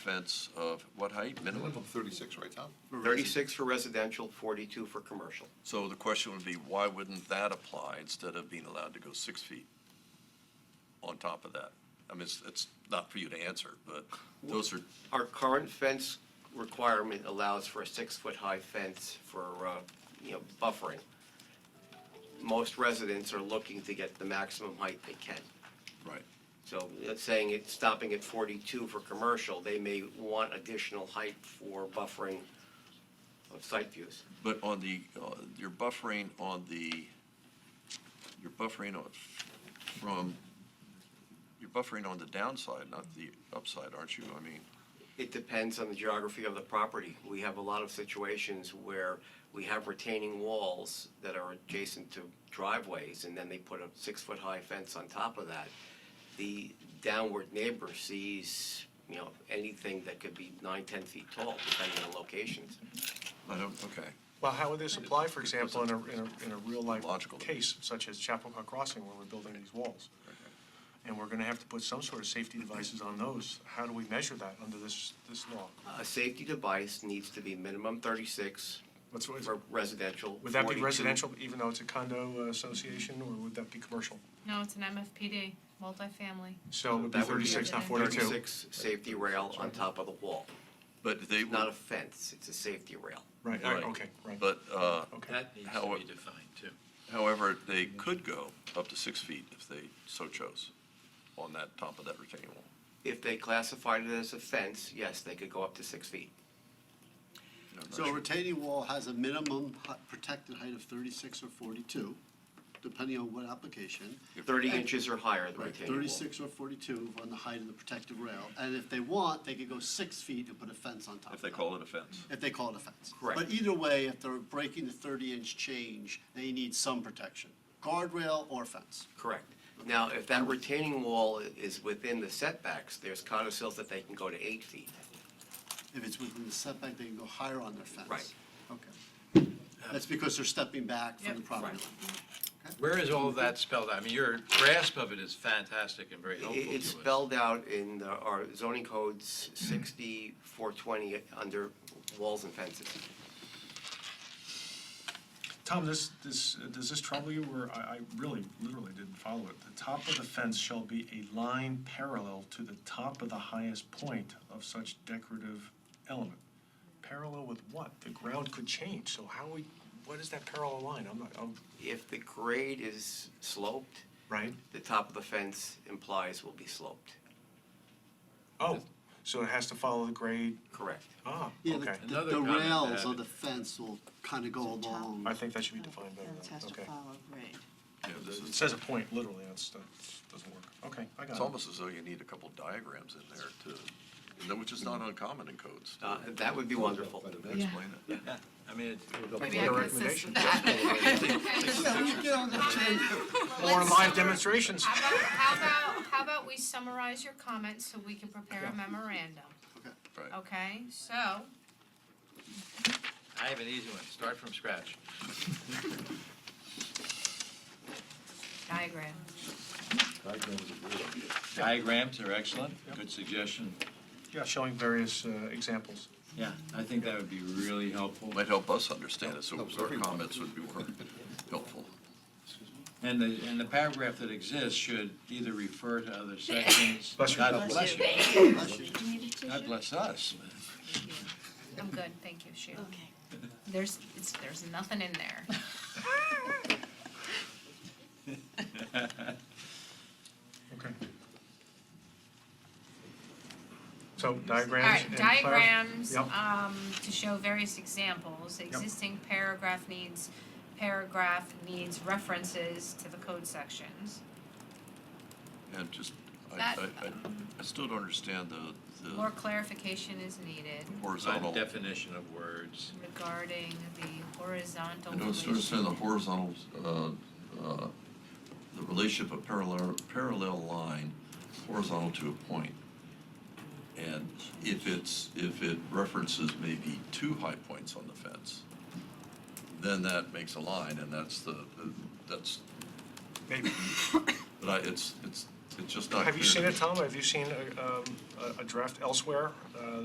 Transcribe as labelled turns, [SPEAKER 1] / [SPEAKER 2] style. [SPEAKER 1] fence of what height, minimum?
[SPEAKER 2] Minimum of 36, right, Tom?
[SPEAKER 3] 36 for residential, 42 for commercial.
[SPEAKER 1] So the question would be, why wouldn't that apply instead of being allowed to go six feet on top of that? I mean, it's, it's not for you to answer, but those are,
[SPEAKER 3] Our current fence requirement allows for a six-foot-high fence for, uh, you know, buffering. Most residents are looking to get the maximum height they can.
[SPEAKER 1] right.
[SPEAKER 3] So it's saying it's stopping at 42 for commercial, they may want additional height for buffering of site views.
[SPEAKER 1] But on the, uh, you're buffering on the, you're buffering on, from, you're buffering on the downside, not the upside, aren't you? I mean,
[SPEAKER 3] It depends on the geography of the property. We have a lot of situations where we have retaining walls that are adjacent to driveways, and then they put a six-foot-high fence on top of that. The downward neighbor sees, you know, anything that could be nine, 10 feet tall, depending on locations.
[SPEAKER 1] I don't, okay.
[SPEAKER 4] Well, how would this apply, for example, in a, in a, in a real-life
[SPEAKER 1] Logical.
[SPEAKER 4] case such as Chapacua Crossing where we're building these walls? And we're gonna have to put some sort of safety devices on those. How do we measure that under this, this law?
[SPEAKER 3] A safety device needs to be minimum 36
[SPEAKER 4] What's, what's-
[SPEAKER 3] for residential.
[SPEAKER 4] would that be
[SPEAKER 3] 42
[SPEAKER 4] residential even though it's a condo uh, association, or would that be commercial?
[SPEAKER 5] No, it's an MFPD, multifamily.
[SPEAKER 4] So it would be
[SPEAKER 3] That would be
[SPEAKER 4] thirty-six, not forty-two.
[SPEAKER 3] 36 safety rail on top of the wall.
[SPEAKER 1] But they
[SPEAKER 3] Not a
[SPEAKER 1] would,
[SPEAKER 3] fence, it's a safety rail.
[SPEAKER 4] Right, all right, okay, right.
[SPEAKER 1] but, uh,
[SPEAKER 4] Okay,
[SPEAKER 6] That needs
[SPEAKER 1] How-
[SPEAKER 6] to be defined too.
[SPEAKER 1] However, they could go up to six feet if they so chose on that top of that retaining wall.
[SPEAKER 3] If they classified it as a fence, yes, they could go up to six feet.
[SPEAKER 1] I'm not
[SPEAKER 7] So a
[SPEAKER 1] sure.
[SPEAKER 7] retaining wall has a minimum hu- protected height of thirty-six or forty-two, depending on what application.
[SPEAKER 3] Thirty inches or higher, the
[SPEAKER 7] Right,
[SPEAKER 3] retaining wall.
[SPEAKER 7] thirty-six or forty-two on the height of the protective rail, and if they want, they could go six feet and put a fence on top of
[SPEAKER 1] If
[SPEAKER 7] that.
[SPEAKER 1] they call it a fence.
[SPEAKER 7] If they call it a fence.
[SPEAKER 3] Correct.
[SPEAKER 7] But either way, if they're breaking the thirty-inch change, they need some protection, guardrail or fence.
[SPEAKER 3] Correct. Now, if that retaining wall i- is within the setbacks, there's codicils that they can go to eight feet.
[SPEAKER 7] If it's within the setback, they can go higher on their fence.
[SPEAKER 3] Right.
[SPEAKER 7] Okay. That's because they're stepping back from the
[SPEAKER 5] Yep.
[SPEAKER 7] property line.
[SPEAKER 3] Right.
[SPEAKER 6] Where is all of that spelled out? I mean, your grasp of it is fantastic and very
[SPEAKER 3] I- i-
[SPEAKER 6] helpful to us.
[SPEAKER 3] It's spelled out in the- our zoning codes sixty-four twenty under walls and fences.
[SPEAKER 4] Tom, this, this, does this trouble you, or I, I really, literally didn't follow it? The top of the fence shall be a line parallel to the top of the highest point of such decorative element. Parallel with what? The ground could change, so how we, what is that parallel line? I'm not, I'm,
[SPEAKER 3] If the grade is sloped,
[SPEAKER 4] right?
[SPEAKER 3] the top of the fence implies will be sloped.
[SPEAKER 4] Oh, so it has to follow the grade,
[SPEAKER 3] Correct.
[SPEAKER 4] ah,
[SPEAKER 7] Yeah, the-
[SPEAKER 4] okay.
[SPEAKER 7] the,
[SPEAKER 6] Another
[SPEAKER 7] the
[SPEAKER 6] comment
[SPEAKER 7] rails of
[SPEAKER 6] added.
[SPEAKER 7] the fence will kind of go
[SPEAKER 8] So top-
[SPEAKER 7] along.
[SPEAKER 4] I think that should be defined better,
[SPEAKER 8] Fence has to
[SPEAKER 4] okay.
[SPEAKER 8] follow grade.
[SPEAKER 1] Yeah, this
[SPEAKER 4] It
[SPEAKER 1] is-
[SPEAKER 4] says a point, literally, that's, that doesn't work. Okay, I
[SPEAKER 1] It's
[SPEAKER 4] got it.
[SPEAKER 1] almost as though you need a couple diagrams in there to, no, which is not uncommon in codes. to
[SPEAKER 3] Uh, That would be wonderful.
[SPEAKER 1] Explain it.
[SPEAKER 6] I mean, it-
[SPEAKER 5] Maybe I could assist with that.
[SPEAKER 4] Or live demonstrations.
[SPEAKER 5] How about, how about, how about we summarize your comments so we can prepare a memorandum,
[SPEAKER 7] Okay.
[SPEAKER 1] Right.
[SPEAKER 5] okay? So,
[SPEAKER 6] I have an easy one. Start from scratch.
[SPEAKER 5] diagram.
[SPEAKER 6] Diagrams are excellent. Good suggestion.
[SPEAKER 4] Yeah, showing various uh, examples.
[SPEAKER 6] Yeah, I think that would be really helpful.
[SPEAKER 1] Might help us understand it, so
[SPEAKER 2] Helps
[SPEAKER 1] our
[SPEAKER 2] everyone.
[SPEAKER 1] comments would be more helpful.
[SPEAKER 6] And the, and the paragraph that exists should either refer to other sections.
[SPEAKER 4] Bless you.
[SPEAKER 6] God bless you.
[SPEAKER 7] Bless you.
[SPEAKER 8] Do you need a
[SPEAKER 6] God
[SPEAKER 8] tissue?
[SPEAKER 6] bless us.
[SPEAKER 5] I'm good, thank you, Sheila.
[SPEAKER 8] Okay.
[SPEAKER 5] There's, it's, there's nothing in there.
[SPEAKER 4] Okay. So
[SPEAKER 5] All
[SPEAKER 4] diagrams.
[SPEAKER 5] right,
[SPEAKER 4] and clar-
[SPEAKER 5] diagrams,
[SPEAKER 4] Yep.
[SPEAKER 5] um, to show various examples, existing paragraph needs, paragraph needs references to the code sections.
[SPEAKER 1] And just, I,
[SPEAKER 5] That- um,
[SPEAKER 1] I, I- I still don't understand the,
[SPEAKER 5] More
[SPEAKER 1] the
[SPEAKER 5] clarification is needed
[SPEAKER 1] horizontal. I
[SPEAKER 6] Definition of words.
[SPEAKER 5] regarding the horizontal
[SPEAKER 1] don't sort of
[SPEAKER 5] relationship.
[SPEAKER 1] understand the horizontal, uh, uh, the relationship of parallel, parallel line horizontal to a point. And if it's, if it references maybe two high points on the fence, then that makes a line and that's the, that's,
[SPEAKER 4] Maybe.
[SPEAKER 1] but I, it's, it's, It's just not clear.
[SPEAKER 4] Have you
[SPEAKER 1] to
[SPEAKER 4] seen
[SPEAKER 1] me.
[SPEAKER 4] it, Tom? Have you seen a, um, a- a draft elsewhere uh,